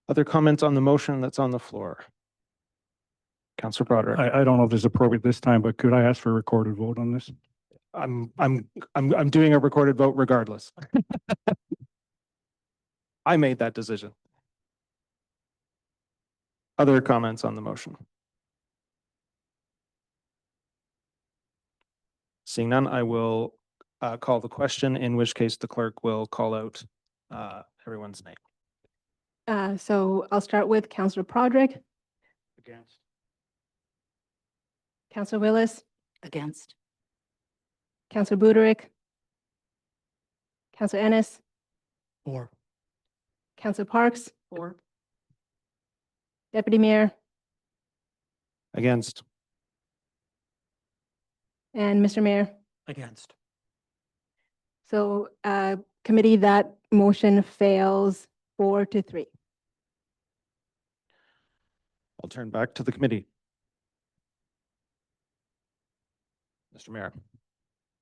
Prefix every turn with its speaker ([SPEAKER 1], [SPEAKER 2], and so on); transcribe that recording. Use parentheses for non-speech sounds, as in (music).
[SPEAKER 1] Other comments on the motion that's on the floor? Counselor Broderick,
[SPEAKER 2] I, I don't know if it's appropriate this time, but could I ask for a recorded vote on this?
[SPEAKER 1] I'm, I'm, I'm, I'm doing a recorded vote regardless. (laughs) I made that decision. Other comments on the motion? Seeing none, I will uh, call the question, in which case the clerk will call out uh, everyone's name.
[SPEAKER 3] Uh, so I'll start with Counselor Prodrick,
[SPEAKER 1] Against.
[SPEAKER 3] Counselor Willis,
[SPEAKER 4] Against.
[SPEAKER 3] Counselor Buderick, Counselor Ennis,
[SPEAKER 5] Four.
[SPEAKER 3] Counselor Parks,
[SPEAKER 4] Four.
[SPEAKER 3] Deputy Mayor,
[SPEAKER 1] Against.
[SPEAKER 3] and Mr. Mayor.
[SPEAKER 5] Against.
[SPEAKER 3] So, uh, committee, that motion fails four to three.
[SPEAKER 1] I'll turn back to the committee. Mr. Mayor.